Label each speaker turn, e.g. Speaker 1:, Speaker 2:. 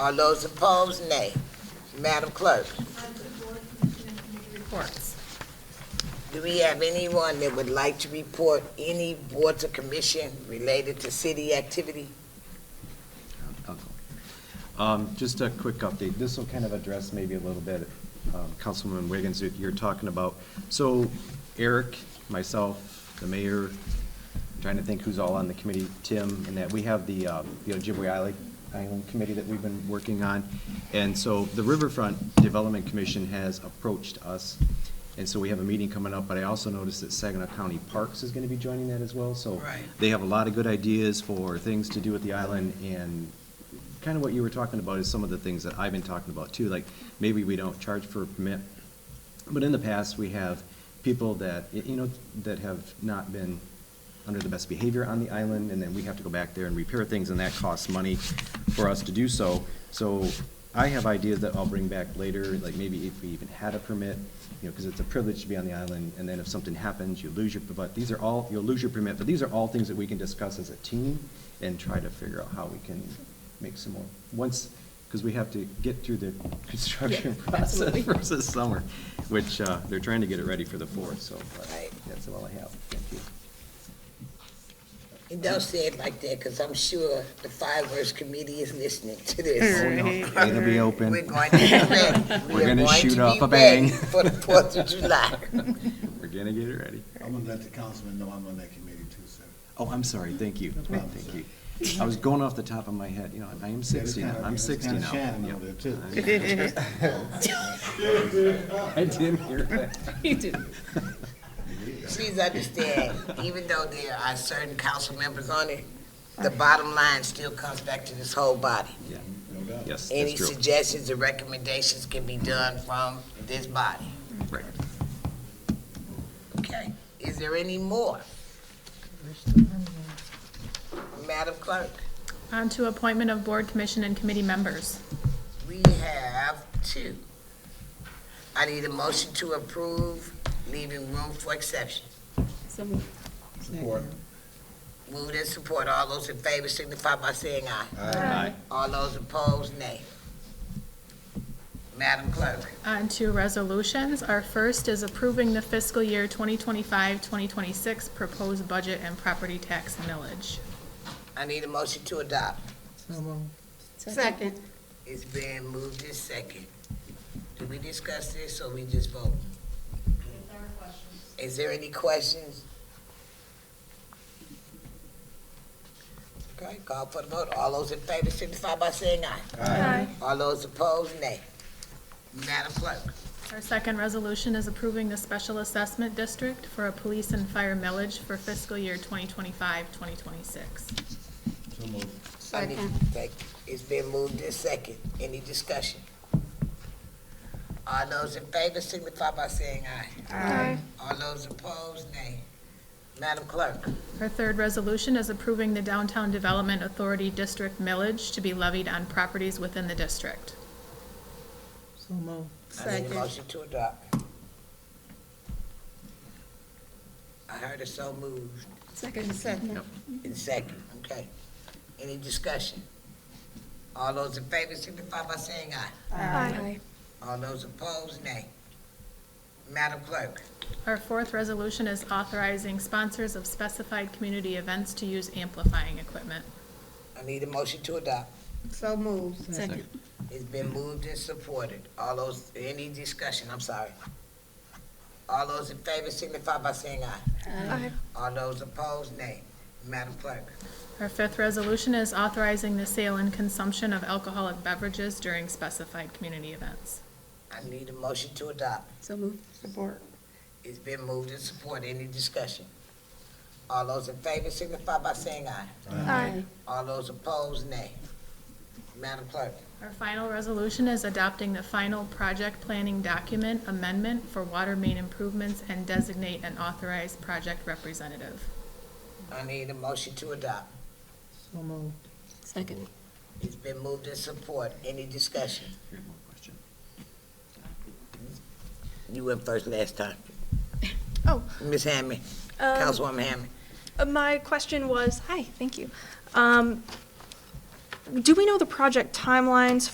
Speaker 1: All those opposed, nay. Madam Clerk,
Speaker 2: Item four, Commission and Committee reports.
Speaker 1: do we have anyone that would like to report any boards or commission related to city activity?
Speaker 3: Um, Just a quick update. This will kind of address maybe a little bit, um, Councilwoman Wiggins, if you're talking about, so Eric, myself, the mayor, I'm trying to think who's all on the committee, Tim, and that, we have the, uh, the Ojibwe Island, Island Committee that we've been working on. And so the Riverfront Development Commission has approached us, and so we have a meeting coming up, but I also noticed that Saginaw County Parks is gonna be joining that as well, so.
Speaker 1: Right.
Speaker 3: They have a lot of good ideas for things to do with the island, and kind of what you were talking about is some of the things that I've been talking about too, like maybe we don't charge for a permit. But in the past, we have people that, y- you know, that have not been under the best behavior on the island, and then we have to go back there and repair things, and that costs money for us to do so. So I have ideas that I'll bring back later, like maybe if we even had a permit, you know, because it's a privilege to be on the island, and then if something happens, you lose your, but these are all, you'll lose your permit, but these are all things that we can discuss as a team and try to figure out how we can make some more, once, because we have to get through the construction
Speaker 2: Yeah,
Speaker 3: process
Speaker 2: absolutely.
Speaker 3: first this summer, which, uh, they're trying to get it ready for the fourth, so. uh,
Speaker 1: Right.
Speaker 3: That's all I have, thank you.
Speaker 1: And Don't say it like that, because I'm sure the fireworks committee is listening to this.
Speaker 3: It'll be open.
Speaker 1: We're going to be ready.
Speaker 3: We're
Speaker 1: We are
Speaker 3: gonna
Speaker 1: going
Speaker 3: shoot
Speaker 1: to
Speaker 3: up
Speaker 1: be
Speaker 3: a bang.
Speaker 1: ready For the Fourth of July.
Speaker 3: We're gonna get it ready.
Speaker 4: I'm gonna let the councilman know I'm on that committee too, sir.
Speaker 3: Oh, I'm sorry, thank you,
Speaker 4: No problem,
Speaker 3: thank
Speaker 4: sir.
Speaker 3: you. I was going off the top of my head, you know, I am sixty now,
Speaker 4: kinda-
Speaker 3: I'm
Speaker 4: it's
Speaker 3: sixty now.
Speaker 4: kinda Shannon over
Speaker 3: Yep.
Speaker 4: there,
Speaker 3: I didn't hear that.
Speaker 2: You do.
Speaker 1: Please understand, even though there are certain council members on it, the bottom line still comes back to this whole body.
Speaker 3: Yeah,
Speaker 4: No doubt.
Speaker 3: yes,
Speaker 1: Any
Speaker 3: that's true,
Speaker 1: suggestions or recommendations can be done from this body,
Speaker 3: right.
Speaker 1: okay? Is there any more? Madam Clerk,
Speaker 5: On to appointment of board, commission, and committee members.
Speaker 1: we have two. I need a motion to approve, leaving room for exception.
Speaker 4: Support.
Speaker 1: Move and support, all those in favor signify by saying aye.
Speaker 3: Aye.
Speaker 1: All those opposed, nay. Madam Clerk,
Speaker 5: On to resolutions. Our first is approving the fiscal year 2025-2026 proposed budget and property tax millage.
Speaker 1: I need a motion to adopt.
Speaker 6: Second.
Speaker 1: It's been moved and second. Did we discuss this or we just vote? Is there any questions? Okay, call for the vote. All those in favor signify by saying aye.
Speaker 5: Aye.
Speaker 1: All those opposed, nay. Madam Clerk,
Speaker 5: Our second resolution is approving the special assessment district for a police and fire millage for fiscal year 2025-2026.
Speaker 4: So moved.
Speaker 1: I need
Speaker 6: Second.
Speaker 1: to take, it's been moved and second. Any discussion? All those in favor signify by saying aye. Aye. All those opposed, nay. Madam Clerk,
Speaker 5: Our third resolution is approving the downtown development authority district millage to be levied on properties within the district.
Speaker 1: I need a
Speaker 6: Second.
Speaker 1: motion to adopt. I heard it so moved
Speaker 6: Second. Second.
Speaker 1: in second, okay. Any discussion? All those in favor signify by saying aye.
Speaker 6: Aye.
Speaker 1: All those opposed, nay. Madam Clerk,
Speaker 5: Our fourth resolution is authorizing sponsors of specified community events to use amplifying equipment.
Speaker 1: I need a motion to adopt.
Speaker 6: So moved.
Speaker 3: Second.
Speaker 1: It's been moved and supported. All those, any discussion, I'm sorry. All those in favor signify by saying aye.
Speaker 6: Aye.
Speaker 1: All those opposed, nay. Madam Clerk,
Speaker 5: Our fifth resolution is authorizing the sale and consumption of alcoholic beverages during specified community events.
Speaker 1: I need a motion to adopt.
Speaker 6: So moved. Support.
Speaker 1: It's been moved and supported. Any discussion? All those in favor signify by saying aye.
Speaker 6: Aye.
Speaker 1: All those opposed, nay. Madam Clerk,
Speaker 5: Our final resolution is adopting the final project planning document amendment for water main improvements and designate an authorized project representative.
Speaker 1: I need a motion to adopt.
Speaker 6: Second.
Speaker 1: It's been moved and supported. Any discussion?
Speaker 3: Here's one question.
Speaker 1: You went first last time.
Speaker 7: Oh.
Speaker 1: Ms. Hammond, Councilwoman Hammond.
Speaker 7: Uh, My question Um, was, hi, thank you. Um, Do we know the project timelines